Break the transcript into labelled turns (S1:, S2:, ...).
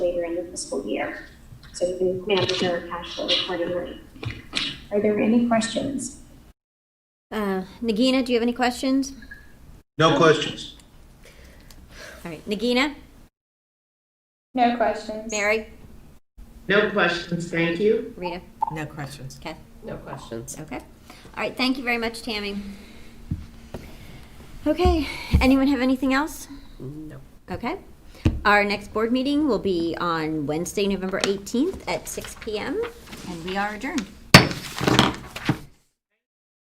S1: fiscal year. So we can manage our cash flow accordingly. Are there any questions?
S2: Uh, Nagina, do you have any questions?
S3: No questions.
S2: All right, Nagina,
S4: No questions.
S2: Mary,
S5: No questions, thank you.
S2: Rita.
S6: No questions.
S2: Okay.
S5: No questions.
S2: Okay. All right, thank you very much, Tammy. Okay, anyone have anything else?
S5: No.
S2: Okay. Our next board meeting will be on Wednesday, November 18th at 6 PM, and we are adjourned.